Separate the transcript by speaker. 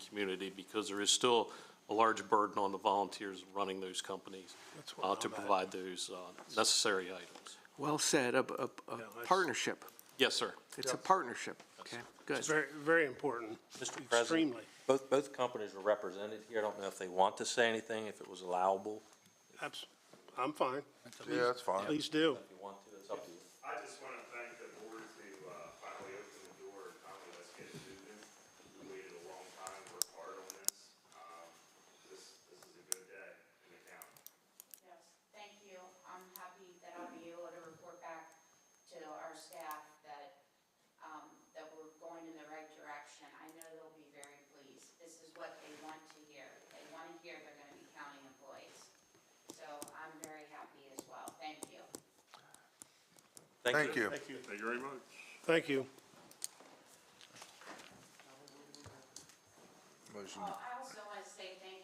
Speaker 1: community because there is still a large burden on the volunteers running those companies
Speaker 2: That's
Speaker 1: uh,
Speaker 2: what
Speaker 1: to
Speaker 2: I'm at.
Speaker 1: provide those uh, necessary items.
Speaker 3: Well said, a, a- a
Speaker 2: that's-
Speaker 3: partnership.
Speaker 1: Yes, sir.
Speaker 3: It's a partnership. Okay, good.
Speaker 2: It's very, very important,
Speaker 4: Mr. President,
Speaker 2: extremely,
Speaker 4: both, both companies are represented here. I don't know if they want to say anything, if it was allowable.
Speaker 2: abs, I'm fine,
Speaker 5: Yeah, that's fine.
Speaker 2: please do.
Speaker 4: If you want to, it's up to you.
Speaker 6: I just want to thank the board to uh, finally open the door and finally let's get it moving. We waited a long time, worked hard on this. Um, This, this is a good day in the county.
Speaker 7: Yes, thank you. I'm happy that I'll be able to report back to our staff that, um, that we're going in the right direction. I know they'll be very pleased. This is what they want to hear. They want to hear they're gonna be county employees. So I'm very happy as well. Thank you.
Speaker 5: Thank you.
Speaker 6: Thank you very much.
Speaker 2: Thank you.
Speaker 5: Motion,
Speaker 7: Oh, I also want to say thank